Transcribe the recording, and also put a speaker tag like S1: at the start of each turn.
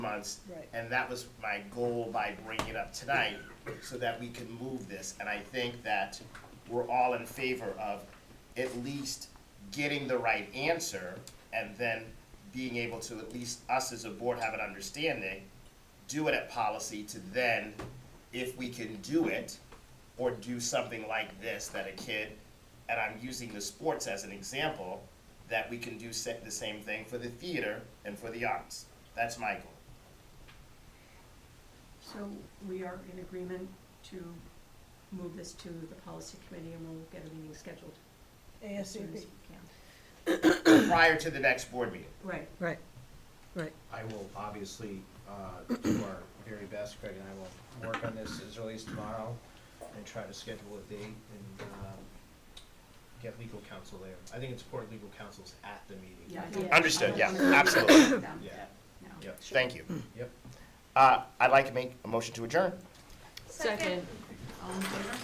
S1: months.
S2: Right.
S1: And that was my goal by bringing it up tonight, so that we can move this. And I think that we're all in favor of at least getting the right answer, and then being able to, at least us as a board have an understanding, do it at policy to then, if we can do it, or do something like this, that a kid, and I'm using the sports as an example, that we can do sa- the same thing for the theater and for the arts. That's my goal.
S3: So we are in agreement to move this to the policy committee and we'll get a meeting scheduled as soon as
S2: ASAP.
S3: we can.
S1: prior to the next board meeting.
S3: Right,
S2: Right, right.
S4: I will obviously uh, do our very best, Craig and I will work on this as early as tomorrow and try to schedule a date and um, get legal counsel there. I think it's important legal counsel's at the meeting.
S3: yeah.
S1: Understood, yeah, absolutely.
S4: Yeah.
S3: Yeah.
S4: Yep,
S1: Thank you.
S4: yep.
S1: Uh, I'd like to make a motion to adjourn.
S3: Second. All in favor?